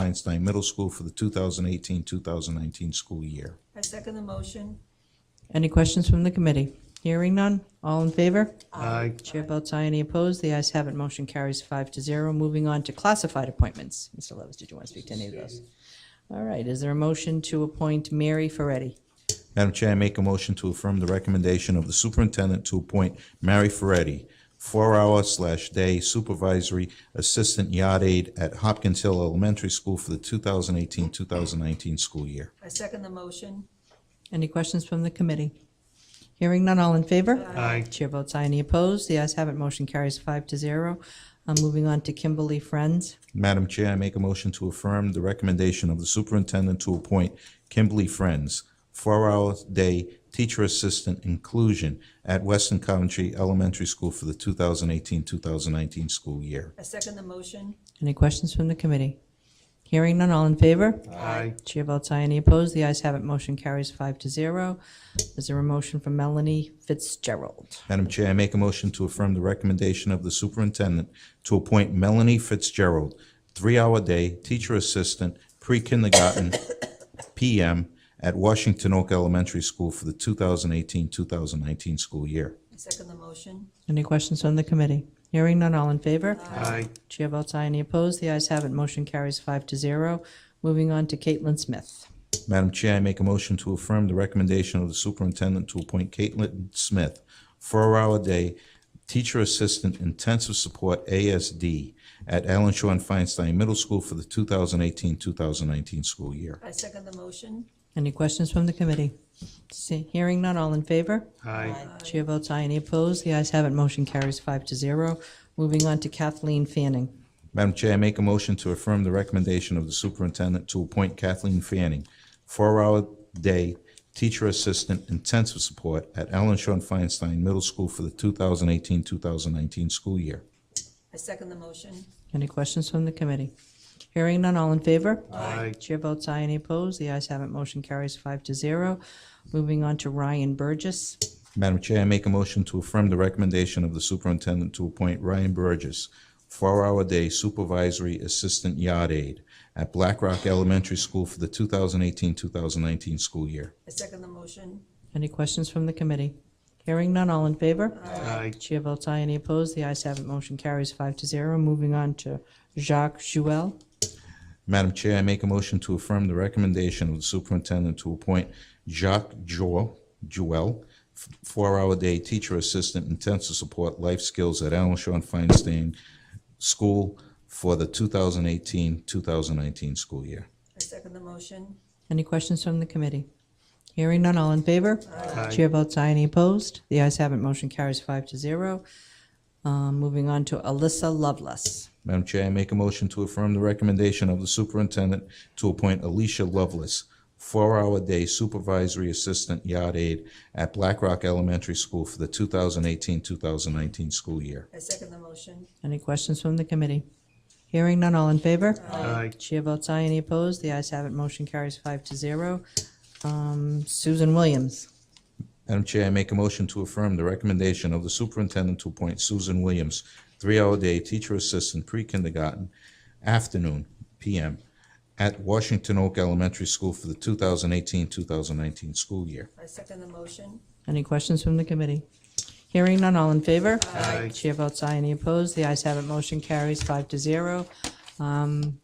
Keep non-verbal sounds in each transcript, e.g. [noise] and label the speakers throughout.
Speaker 1: Feinstein Middle School for the 2018-2019 school year.
Speaker 2: I second the motion.
Speaker 3: Any questions from the committee? Hearing none, all in favor?
Speaker 4: Aye.
Speaker 3: Chair votes aye, any opposed? The ayes have it, motion carries five to zero. Moving on to classified appointments. Mr. Levis, did you want to speak to any of those? All right, is there a motion to appoint Mary Ferretti?
Speaker 1: Madam Chair, I make a motion to affirm the recommendation of the superintendent to appoint Mary Ferretti, four-hour slash day supervisory assistant yard aide at Hopkins Hill Elementary School for the 2018-2019 school year.
Speaker 2: I second the motion.
Speaker 3: Any questions from the committee? Hearing none, all in favor?
Speaker 4: Aye.
Speaker 3: Chair votes aye, any opposed? The ayes have it, motion carries five to zero. Uh, Moving on to Kimberly Friends.
Speaker 1: Madam Chair, I make a motion to affirm the recommendation of the superintendent to appoint Kimberly Friends, four-hour day teacher assistant inclusion at Weston Coventry Elementary School for the 2018-2019 school year.
Speaker 2: I second the motion.
Speaker 3: Any questions from the committee? Hearing none, all in favor?
Speaker 4: Aye.
Speaker 3: Chair votes aye, any opposed? The ayes have it, motion carries five to zero. Is there a motion from Melanie Fitzgerald?
Speaker 1: Madam Chair, I make a motion to affirm the recommendation of the superintendent to appoint Melanie Fitzgerald, three-hour day teacher assistant, pre-kindergarten [coughs] PM at Washington Oak Elementary School for the 2018-2019 school year.
Speaker 2: I second the motion.
Speaker 3: Any questions from the committee? Hearing none, all in favor?
Speaker 4: Aye.
Speaker 3: Chair votes aye, any opposed? The ayes have it, motion carries five to zero. Moving on to Caitlin Smith.
Speaker 1: Madam Chair, I make a motion to affirm the recommendation of the superintendent to appoint Caitlin Smith, four-hour day teacher assistant intensive support ASD at Allen Shaw and Feinstein Middle School for the 2018-2019 school year.
Speaker 2: I second the motion.
Speaker 3: Any questions from the committee? See- Hearing none, all in favor?
Speaker 4: Aye.
Speaker 3: Chair votes aye, any opposed? The ayes have it, motion carries five to zero. Moving on to Kathleen Fanning.
Speaker 1: Madam Chair, I make a motion to affirm the recommendation of the superintendent to appoint Kathleen Fanning, four-hour day teacher assistant intensive support at Allen Shawn Feinstein Middle School for the 2018-2019 school year.
Speaker 2: I second the motion.
Speaker 3: Any questions from the committee? Hearing none, all in favor?
Speaker 4: Aye.
Speaker 3: Chair votes aye, any opposed? The ayes have it, motion carries five to zero. Moving on to Ryan Burgess.
Speaker 1: Madam Chair, I make a motion to affirm the recommendation of the superintendent to appoint Ryan Burgess, four-hour day supervisory assistant yard aide at Black Rock Elementary School for the 2018-2019 school year.
Speaker 2: I second the motion.
Speaker 3: Any questions from the committee? Hearing none, all in favor?
Speaker 4: Aye.
Speaker 3: Chair votes aye, any opposed? The ayes have it, motion carries five to zero. Moving on to Jacques Jouel.
Speaker 1: Madam Chair, I make a motion to affirm the recommendation of the superintendent to appoint Jacques Joel, Joel, f- four-hour day teacher assistant intensive support life skills at Allen Shawn Feinstein School for the 2018-2019 school year.
Speaker 2: I second the motion.
Speaker 3: Any questions from the committee? Hearing none, all in favor?
Speaker 4: Aye.
Speaker 3: Chair votes aye, any opposed? The ayes have it, motion carries five to zero. Uh, Moving on to Alyssa Lovelace.
Speaker 1: Madam Chair, I make a motion to affirm the recommendation of the superintendent to appoint Alicia Lovelace, four-hour day supervisory assistant yard aide at Black Rock Elementary School for the 2018-2019 school year.
Speaker 2: I second the motion.
Speaker 3: Any questions from the committee? Hearing none, all in favor?
Speaker 4: Aye.
Speaker 3: Chair votes aye, any opposed? The ayes have it, motion carries five to zero. Um, Susan Williams.
Speaker 1: Madam Chair, I make a motion to affirm the recommendation of the superintendent to appoint Susan Williams, three-hour day teacher assistant pre-kindergarten afternoon PM at Washington Oak Elementary School for the 2018-2019 school year.
Speaker 2: I second the motion.
Speaker 3: Any questions from the committee? Hearing none, all in favor?
Speaker 4: Aye.
Speaker 3: Chair votes aye, any opposed? The ayes have it, motion carries five to zero. Um,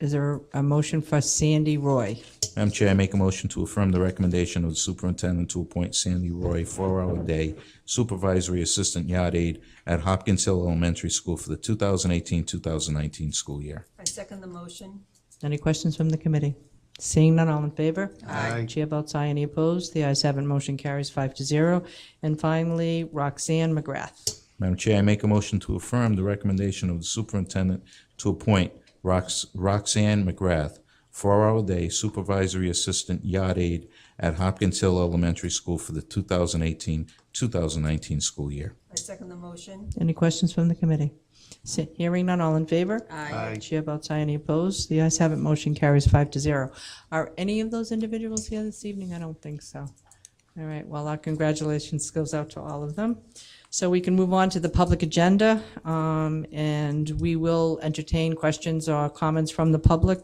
Speaker 3: Is there a motion for Sandy Roy?
Speaker 1: Madam Chair, I make a motion to affirm the recommendation of the superintendent to appoint Sandy Roy, four-hour day supervisory assistant yard aide at Hopkins Hill Elementary School for the 2018-2019 school year.
Speaker 2: I second the motion.
Speaker 3: Any questions from the committee? Seeing none, all in favor?
Speaker 4: Aye.
Speaker 3: Chair votes aye, any opposed? The ayes have it, motion carries five to zero. And finally, Roxanne McGrath.
Speaker 1: Madam Chair, I make a motion to affirm the recommendation of the superintendent to appoint Rox- Roxanne McGrath, four-hour day supervisory assistant yard aide at Hopkins Hill Elementary School for the 2018-2019 school year.
Speaker 2: I second the motion.
Speaker 3: Any questions from the committee? Se- Hearing none, all in favor?
Speaker 4: Aye.
Speaker 3: Chair votes aye, any opposed? The ayes have it, motion carries five to zero. Are any of those individuals here this evening? I don't think so. All right, well, our congratulations goes out to all of them. So we can move on to the public agenda, um, and we will entertain questions or comments from the public